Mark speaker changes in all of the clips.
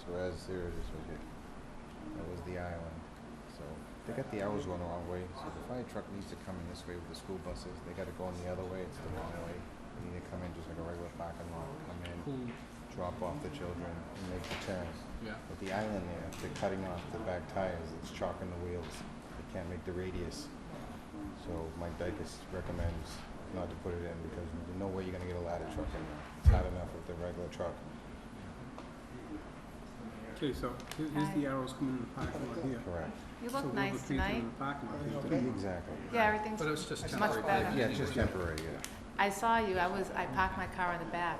Speaker 1: serious with it. That was the island. So they got the hours going the wrong way. So the fire truck needs to come in this way with the school buses. They got to go in the other way. It's the wrong way. They need to come in just like a regular parking lot. Come in,
Speaker 2: Cool.
Speaker 1: drop off the children, and make the turn.
Speaker 2: Yeah.
Speaker 1: With the island there, they're cutting off the back tires. It's chalking the wheels. They can't make the radius. So Mike Dykes recommends not to put it in because there's no way you're gonna get a ladder truck in there. It's hot enough with the regular truck.
Speaker 2: Okay, so here- here's the arrows coming in the parking lot here.
Speaker 1: Correct.
Speaker 3: You
Speaker 2: So
Speaker 3: look
Speaker 2: we'll
Speaker 3: nice
Speaker 2: just leave them
Speaker 3: tonight.
Speaker 2: In the parking lot. There's the-
Speaker 1: Exactly.
Speaker 3: Yeah, everything's,
Speaker 4: But it's just
Speaker 3: Much
Speaker 4: temporary.
Speaker 3: better.
Speaker 4: thing
Speaker 1: Yeah, it's just
Speaker 4: anyway.
Speaker 1: temporary, yeah.
Speaker 3: I saw you, I was, I parked my car in the back.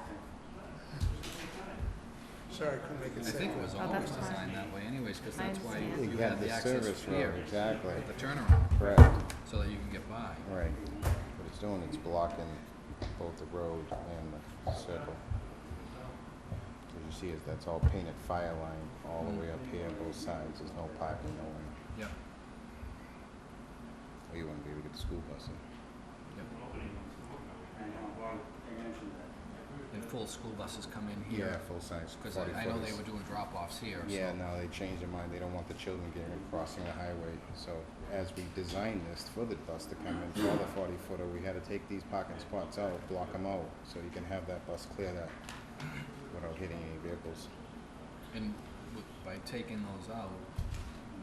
Speaker 5: Sorry, couldn't make it
Speaker 4: I think it was
Speaker 5: safe.
Speaker 3: Oh, that's
Speaker 4: always
Speaker 3: fine.
Speaker 4: designed that way anyways, because
Speaker 3: I
Speaker 4: that's why
Speaker 3: understand.
Speaker 4: you
Speaker 1: You
Speaker 4: have
Speaker 1: had
Speaker 4: the
Speaker 1: the
Speaker 4: access
Speaker 1: service
Speaker 4: here,
Speaker 1: road, exactly.
Speaker 4: the turnaround,
Speaker 1: Correct,
Speaker 4: so that you can get by.
Speaker 1: right. What it's doing, it's blocking both the road and the circle. As you see, is that's all painted fire line all the way up here, both sides, there's no parking, no one.
Speaker 4: Yep,
Speaker 1: Or you wouldn't be able to get the school bus in.
Speaker 4: yep. And full school buses come in
Speaker 1: Yeah,
Speaker 4: here,
Speaker 1: full-size,
Speaker 4: because
Speaker 1: forty
Speaker 4: I know they
Speaker 1: footers.
Speaker 4: were doing drop-offs here, so.
Speaker 1: Yeah, no, they changed their mind. They don't want the children getting crossing the highway. So as we designed this for the bus to come in for the forty footer, we had to take these parking spots out, block them out, so you can have that bus clear that without hitting any vehicles.
Speaker 4: And w- by taking those out,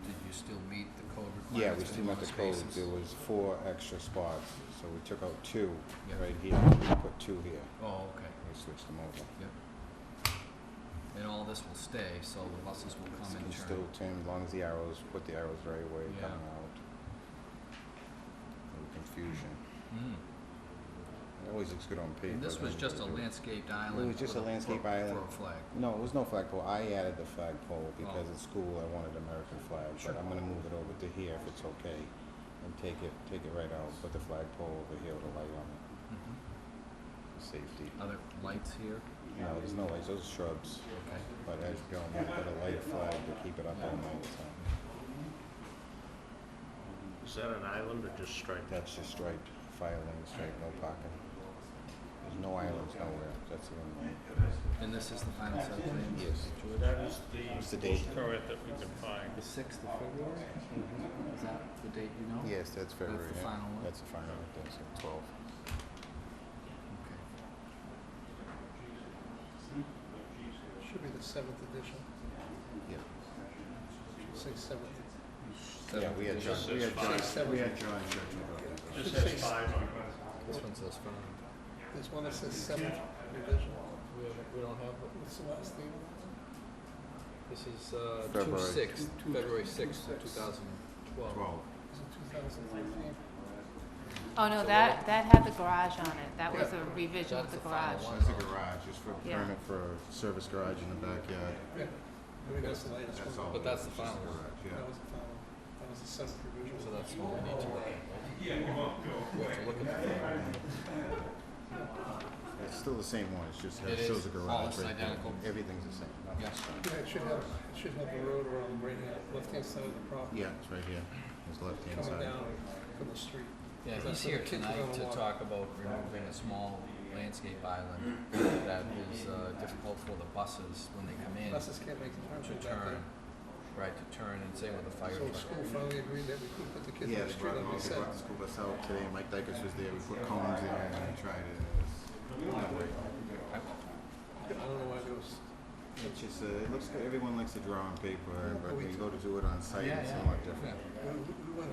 Speaker 4: did you still meet the code requirements?
Speaker 1: Yeah, we
Speaker 4: for
Speaker 1: still
Speaker 4: amount
Speaker 1: met the
Speaker 4: of
Speaker 1: code.
Speaker 4: spaces?
Speaker 1: There was four extra spots, so we took out two
Speaker 4: Yeah.
Speaker 1: right here, we put two here.
Speaker 4: Oh, okay,
Speaker 1: We switched them over.
Speaker 4: yep. And all this will stay, so the buses will come
Speaker 1: You
Speaker 4: and
Speaker 1: can
Speaker 4: turn.
Speaker 1: still turn as long as the arrows, put the arrows the right way,
Speaker 4: Yeah.
Speaker 1: coming out. No confusion.
Speaker 4: Mm.
Speaker 1: It always looks good on paper.
Speaker 4: And this
Speaker 1: doesn't
Speaker 4: was
Speaker 1: it?
Speaker 4: just a
Speaker 1: It-
Speaker 4: landscaped island.
Speaker 1: just
Speaker 4: with
Speaker 1: a landscape
Speaker 4: for-
Speaker 1: island.
Speaker 4: For a flag.
Speaker 1: No, it was no flagpole. I added the flagpole because
Speaker 4: Oh.
Speaker 1: at school I wanted American flag,
Speaker 4: Sure.
Speaker 1: but I'm gonna move it over to here if it's okay. And take it, take it right out, put the flagpole over here with a light on it,
Speaker 4: Mhm.
Speaker 1: for safety.
Speaker 4: Other lights here,
Speaker 1: No, there's no lights, those are shrubs,
Speaker 4: okay.
Speaker 1: but as you go, you put a light flag to keep it up all night, so.
Speaker 6: Is that an island or just striped?
Speaker 1: That's just striped, fire lane striped, no pocket. There's no islands nowhere, that's the only one.
Speaker 4: And this is the final set of plans?
Speaker 1: Yes.
Speaker 4: George?
Speaker 6: That is
Speaker 1: It's the
Speaker 6: the
Speaker 1: date.
Speaker 6: most current that we can find.
Speaker 4: The sixth of February? Is that the date you know?
Speaker 1: Yes, that's February,
Speaker 4: the
Speaker 1: Mm-hmm. yeah.
Speaker 4: final one?
Speaker 1: That's the final one, that's the twelve.
Speaker 4: Okay.
Speaker 5: Should be the seventh edition,
Speaker 1: Yeah.
Speaker 5: should say seventh.
Speaker 1: Yeah, we had John,
Speaker 6: Just
Speaker 1: we
Speaker 6: says
Speaker 1: had John,
Speaker 5: five.
Speaker 1: we had John Churchill about that.
Speaker 6: Just says five on it.
Speaker 4: This one says final.
Speaker 5: There's one that says seventh revision.
Speaker 4: We haven't, we don't have,
Speaker 5: What's the last name of
Speaker 4: this is, uh, two
Speaker 1: February.
Speaker 4: sixth,
Speaker 5: Two-
Speaker 4: February sixth,
Speaker 5: two-
Speaker 4: two thousand twelve.
Speaker 1: Twelve.
Speaker 5: that? Is it two thousand fifteen?
Speaker 3: Oh, no, that, that had the garage on it, that was a revision of
Speaker 4: That's
Speaker 3: the
Speaker 4: the final
Speaker 3: garage.
Speaker 4: one.
Speaker 1: That's a garage, just for
Speaker 3: Yeah.
Speaker 1: permit for a service garage in the backyard.
Speaker 5: Yeah, I mean, that's the latest
Speaker 1: That's all.
Speaker 5: one.
Speaker 4: But that's the
Speaker 1: It's just a
Speaker 4: final.
Speaker 1: garage,
Speaker 5: That
Speaker 1: Yeah.
Speaker 5: was the final, that was the seventh revision.
Speaker 4: So that's what we need to look at. We have to look at the final one.
Speaker 1: It's still the same one, it's just,
Speaker 4: It
Speaker 1: it shows
Speaker 4: is.
Speaker 1: a
Speaker 4: All
Speaker 1: garage right
Speaker 4: is
Speaker 1: there.
Speaker 4: identical.
Speaker 1: Everything's the same. nothing's
Speaker 4: Yes.
Speaker 1: changed.
Speaker 5: Yeah, it should have, it should have the road around the right hand, left-hand side of the property.
Speaker 1: Yeah, it's right here, it's left hand
Speaker 5: Coming
Speaker 1: side.
Speaker 5: down from the street.
Speaker 4: Yeah, he's
Speaker 5: That's
Speaker 4: here
Speaker 5: what the kids are
Speaker 4: tonight
Speaker 5: gonna
Speaker 4: to
Speaker 5: want.
Speaker 4: talk about removing a small landscape island that is uh, difficult for the buses when they come in
Speaker 5: Buses can't make the
Speaker 4: to
Speaker 5: turn from back
Speaker 4: turn,
Speaker 5: there.
Speaker 4: right, to turn and say with the fire
Speaker 5: So the
Speaker 4: truck.
Speaker 5: school finally agreed that we could put the kids
Speaker 1: Yeah,
Speaker 5: on the
Speaker 1: they
Speaker 5: street
Speaker 1: brought,
Speaker 5: like we
Speaker 1: they
Speaker 5: said.
Speaker 1: brought the school bus out today, and Mike Dykes was there, we put cones in and we tried it. It was not great.
Speaker 5: I don't know why there was,
Speaker 1: It's just, uh, it looks good, everyone likes to draw on paper, but when you go to do it on site,
Speaker 4: Yeah,
Speaker 1: it's
Speaker 4: yeah.
Speaker 1: somewhat different.
Speaker 4: Yeah.
Speaker 5: we, we went